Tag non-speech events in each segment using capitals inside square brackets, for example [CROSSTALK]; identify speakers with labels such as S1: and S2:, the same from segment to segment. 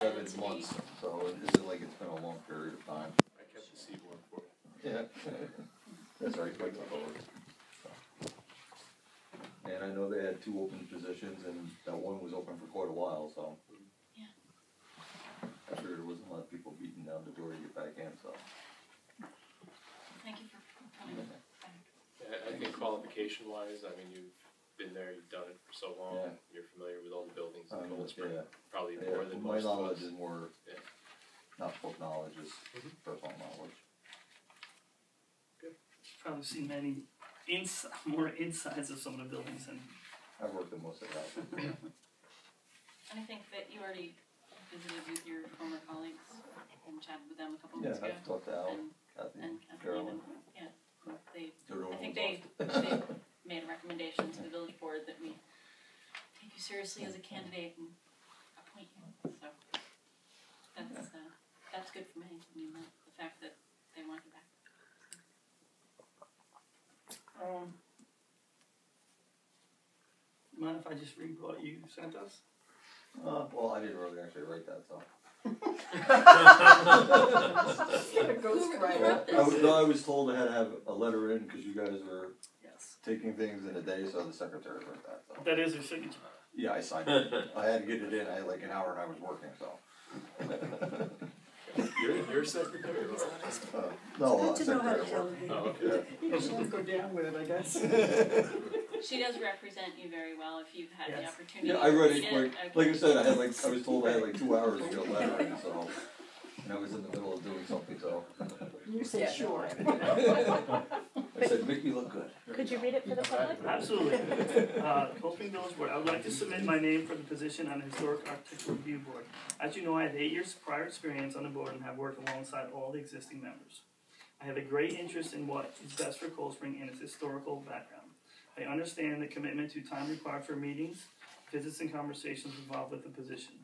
S1: seven months, so it isn't like it's been a long period of time.
S2: I kept the seaboard for it.
S1: Yeah. [LAUGHS] That's right, like the lower. And I know they had two open positions and that one was open for quite a while, so.
S3: Yeah.
S1: I figured it wasn't a lot of people beating down the door to get back in, so.
S3: Thank you for coming.
S2: I, I think qualification wise, I mean, you've been there, you've done it for so long,
S1: Yeah.
S2: you're familiar with all the buildings
S1: Um,
S2: in Cold Spring,
S1: yeah.
S2: probably
S1: Yeah,
S2: more than
S1: my
S2: most of
S1: knowledge
S2: us.
S1: is more,
S2: Yeah.
S1: not book knowledge, is
S2: Mhm.
S1: personal knowledge.
S4: probably seen many ins- [LAUGHS] more insides of some of the buildings and
S1: I've worked in most of that.
S3: And I think that you already visited with your former colleagues and chatted with them a couple
S1: Yeah,
S3: months ago.
S1: I've talked to Al,
S3: And,
S1: Kathy,
S3: and Kathleen
S1: Carolyn,
S3: and, yeah, they
S1: they're the
S3: I think
S1: ones
S3: they-
S1: lost.
S3: they- made a recommendation to the village board that we take you seriously as a candidate and appoint you, so. That's, uh, that's good for me, I mean, the, the fact that they want you back.
S4: um mind if I just read what you sent us?
S1: Uh, well, I didn't really actually write that, so. [LAUGHS]
S3: Right.
S1: I was, no, I was told I had to have a letter in because you guys were
S4: Yes.
S1: taking things in a day, so the secretary wrote that. So.
S4: That is her signature.
S1: Yeah, I signed it. I had to get it in. I had like an hour and I was working,
S5: [LAUGHS]
S1: so.
S2: You're, you're secretary, right?
S1: Uh,
S6: Oh,
S1: no, uh,
S5: Good to know how
S1: secretary
S5: to
S1: at
S5: tell
S1: work.
S5: it.
S2: Oh, okay.
S5: You just wanna go down with it, I guess. [LAUGHS]
S3: She does represent you very well, if you've had the
S4: Yes.
S1: [LAUGHS]
S3: opportunity.
S1: Yeah, I
S3: to
S1: read
S3: read
S1: it quick.
S3: okay.
S1: Like I said, I had like I was told I had like two hours to get a letter in, so. And I was in the middle of doing something, so.
S5: You said sure.
S6: [LAUGHS]
S1: I said, make me look good.
S6: Could you read it for the public?
S4: Absolutely. Uh, Copeland Village Board, I would like to submit my name for the position on the Historic Architectural Review Board. As you know, I have eight years prior experience on the board and have worked alongside all the existing members. I have a great interest in what is best for Cold Spring and its historical background. I understand the commitment to time required for meetings, visits, and conversations involved with the position.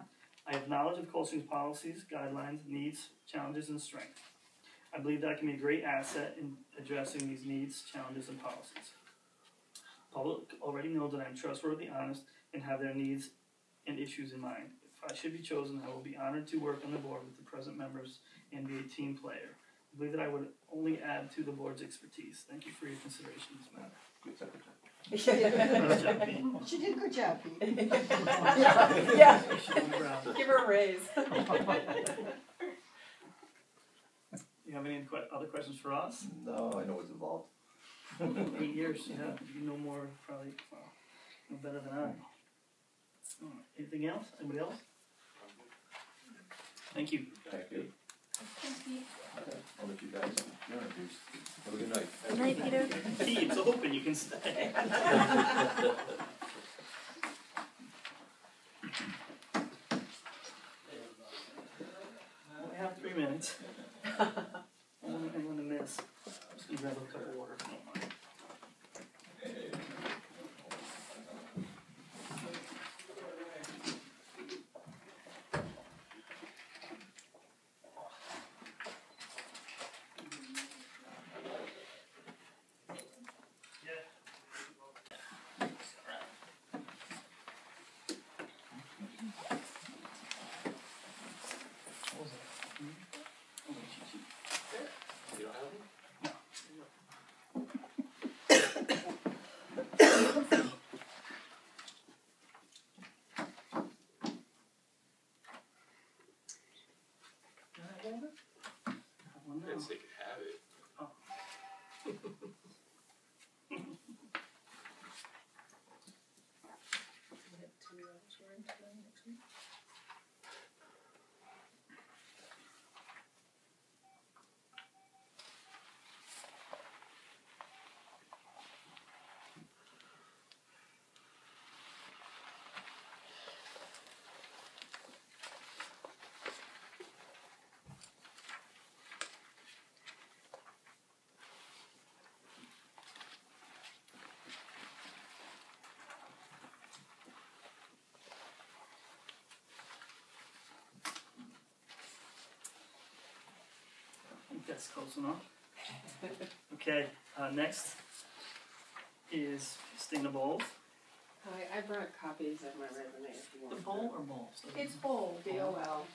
S4: I have knowledge of Cold Spring's policies, guidelines, needs, challenges, and strengths. I believe that I can be a great asset in addressing these needs, challenges, and policies. Public already know that I'm trustworthy, honest, and have their needs and issues in mind. If I should be chosen, I will be honored to work on the board with the present members and be a team player. I believe that I would only add to the board's expertise. Thank you for your consideration in this matter.
S1: Good secretary.
S4: Nice job, Pete.
S5: She did a good job,
S6: [LAUGHS]
S5: Pete.
S6: Yeah,
S4: Sean Brown.
S6: give her a raise.
S4: You have any que- other questions for us?
S1: No, I know what's involved.
S4: Eight years, yeah, you know more probably, well, no better than I. Alright, Anything else? Anybody else? Thank you.
S1: Thank you. I'll let you guys introduce. Have a good night.
S6: Good night, Peter.
S4: Pete, it's open, you can stay. We have three minutes. I want to miss. I'm just gonna grab a cup of water. if you don't mind. Oh, cheat sheet.
S2: You don't have one?
S4: Got one
S2: I
S4: now.
S2: didn't say you could have it.
S4: I think that's close enough. Okay, uh, next is Stina Bowles.
S7: I, I brought copies of my resume if you want.
S4: or Bowles?
S7: It's bold, B O L.